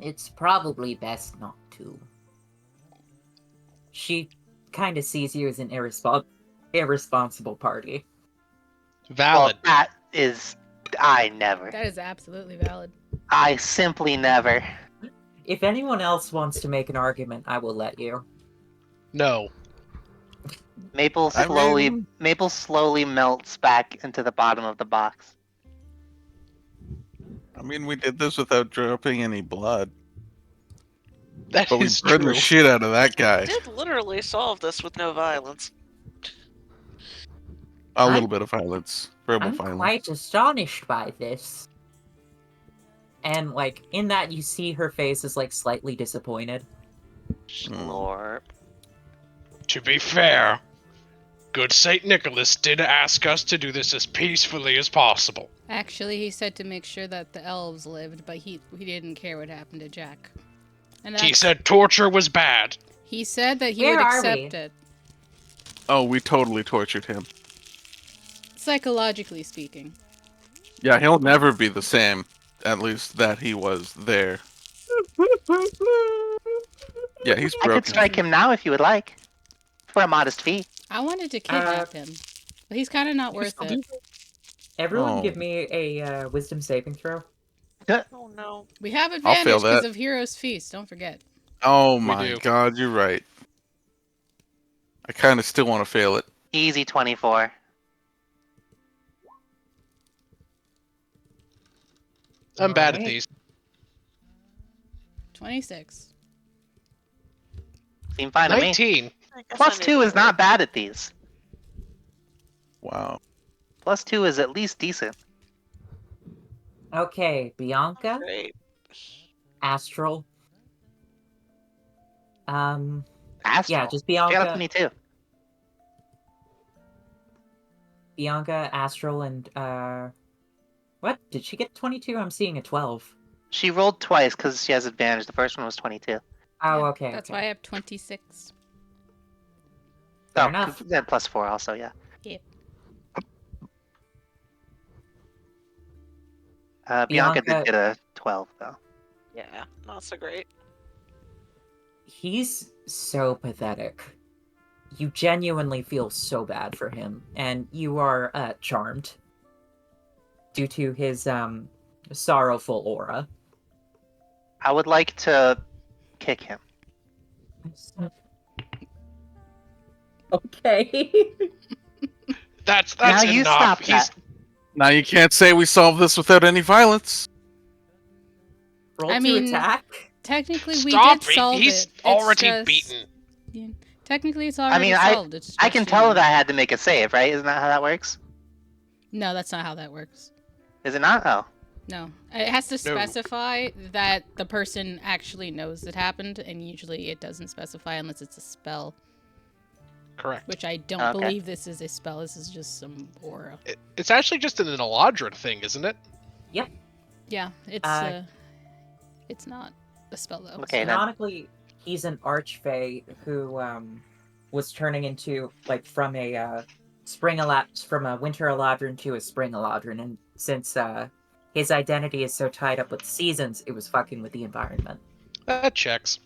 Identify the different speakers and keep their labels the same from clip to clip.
Speaker 1: It's probably best not to. She kind of sees you as an irrespo- irresponsible party.
Speaker 2: Valid.
Speaker 3: Well, that is, I never.
Speaker 4: That is absolutely valid.
Speaker 3: I simply never.
Speaker 1: If anyone else wants to make an argument, I will let you.
Speaker 2: no.
Speaker 3: Maple
Speaker 5: I
Speaker 3: slowly,
Speaker 5: mean-
Speaker 3: Maple slowly melts back into the bottom of the box.
Speaker 5: I mean, we did this without dropping any blood,
Speaker 2: That
Speaker 5: but we
Speaker 2: is
Speaker 5: burned
Speaker 2: true.
Speaker 5: the shit out of that guy.
Speaker 6: did literally solve this with no violence.
Speaker 5: A
Speaker 1: I'm-
Speaker 5: little bit of violence, verbal
Speaker 1: I'm
Speaker 5: violence.
Speaker 1: quite astonished by this. And like in that you see her face is like slightly disappointed.
Speaker 5: Mm.
Speaker 3: Slurp.
Speaker 2: To be fair, good Saint Nicholas did ask us to do this as peacefully as possible.
Speaker 4: Actually, he said to make sure that the elves lived, but he he didn't care what happened to Jack. And
Speaker 2: He
Speaker 4: that's-
Speaker 2: said torture was bad.
Speaker 4: he said that he
Speaker 1: Where
Speaker 4: would
Speaker 1: are
Speaker 4: accept
Speaker 1: we?
Speaker 4: it,
Speaker 5: Oh, we totally tortured him.
Speaker 4: psychologically speaking.
Speaker 5: Yeah, he'll never be the same. At least that he was there. Yeah, he's
Speaker 3: I could
Speaker 5: broken.
Speaker 3: strike him now if you would like, for a modest fee.
Speaker 4: I wanted to kidnap him, but he's kind of not worth it.
Speaker 1: Everyone
Speaker 5: Oh.
Speaker 1: give me a uh, wisdom saving throw.
Speaker 6: Oh no.
Speaker 4: We have
Speaker 5: fail
Speaker 4: advantage because
Speaker 5: that.
Speaker 4: of Heroes Feast. Don't forget.
Speaker 5: oh
Speaker 2: We
Speaker 5: my
Speaker 2: do.
Speaker 5: god, you're right. I kind of still want to fail it.
Speaker 3: Easy twenty-four.
Speaker 2: I'm bad at
Speaker 1: Alright.
Speaker 2: these.
Speaker 4: Twenty-six.
Speaker 3: Seem fine to me.
Speaker 2: 19.
Speaker 6: I guess
Speaker 3: Plus
Speaker 6: I need
Speaker 3: two
Speaker 6: to-
Speaker 3: is not bad at these.
Speaker 5: Wow.
Speaker 3: Plus two is at least decent.
Speaker 1: Okay, Bianca,
Speaker 6: Great.
Speaker 1: Astral. Um,
Speaker 3: Astral.
Speaker 1: yeah, just
Speaker 3: I got a
Speaker 1: Bianca,
Speaker 3: twenty-two.
Speaker 1: Bianca, Astral, and uh, what did she get? Twenty two. I'm seeing a twelve.
Speaker 3: She rolled twice because she has advantage. The first one was twenty-two.
Speaker 1: Oh,
Speaker 4: Yeah,
Speaker 1: okay.
Speaker 4: That's
Speaker 1: okay.
Speaker 4: why I have twenty-six.
Speaker 1: Fair
Speaker 3: oh,
Speaker 1: enough.
Speaker 3: then plus four also. Yeah.
Speaker 4: Yep.
Speaker 3: Uh, Bianca,
Speaker 1: Bianca-
Speaker 3: did get a twelve though.
Speaker 6: Yeah, not so great.
Speaker 1: He's so pathetic. You genuinely feel so bad for him, and you are uh, charmed due to his um sorrowful aura.
Speaker 3: I would like to kick him.
Speaker 1: Okay.
Speaker 2: That's that's
Speaker 3: now you
Speaker 2: enough.
Speaker 3: stop
Speaker 2: He's
Speaker 3: that.
Speaker 5: Now you can't say we solved this without any violence.
Speaker 1: Roll
Speaker 4: I
Speaker 1: to
Speaker 4: mean-
Speaker 1: attack.
Speaker 4: Technically, we
Speaker 2: stop
Speaker 4: did solve
Speaker 2: it. He's
Speaker 4: it. It's
Speaker 2: already
Speaker 4: just-
Speaker 2: beaten.
Speaker 4: yeah, Technically, it's already
Speaker 3: mean, I-
Speaker 4: solved. It's
Speaker 3: I
Speaker 4: just
Speaker 3: can
Speaker 4: you.
Speaker 3: tell that I had to make a save, right? Isn't that how that works?
Speaker 4: No, that's not how that works.
Speaker 3: Is it not? Oh,
Speaker 4: No, it has to specify that the person actually knows it happened, and usually it doesn't specify unless it's a spell.
Speaker 2: Correct.
Speaker 4: Which I don't
Speaker 3: Okay.
Speaker 4: believe this is a spell. This is just some aura.
Speaker 2: It- It's actually just an Eladrin thing, isn't it?
Speaker 4: Yeah,
Speaker 1: Uh,
Speaker 4: it's uh, it's not a spell though.
Speaker 3: Okay, then.
Speaker 4: so-
Speaker 1: Canonically, he's an archfey who um was turning into like from a uh, spring elapse from a winter eladrin to a spring eladrin, and since uh his identity is so tied up with seasons, it was fucking with the environment.
Speaker 2: That checks.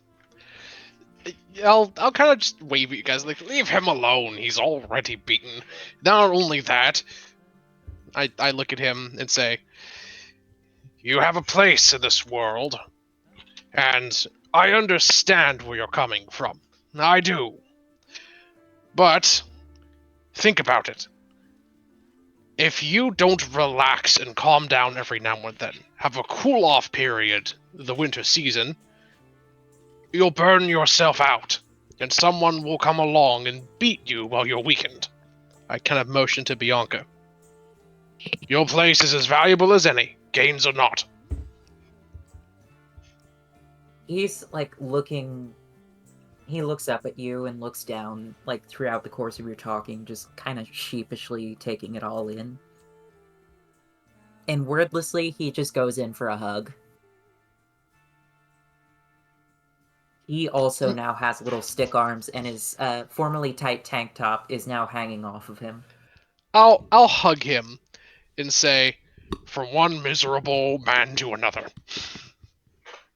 Speaker 2: I'll I'll kind of just wave at you guys like leave him alone. He's already beaten. Not only that, I I look at him and say, "You have a place in this world, and I understand where you're coming from. I do. But think about it. If you don't relax and calm down every now and then, have a cool off period, the winter season, you'll burn yourself out, and someone will come along and beat you while you're weakened. I kind of motion to Bianca. Your place is as valuable as any, gains or not.
Speaker 1: He's like looking. He looks up at you and looks down, like throughout the course of your talking, just kind of sheepishly taking it all in. And wordlessly, he just goes in for a hug. He also now has little stick arms, and his uh, formerly tight tank top is now hanging off of him.
Speaker 2: I'll I'll hug him and say, from one miserable man to another.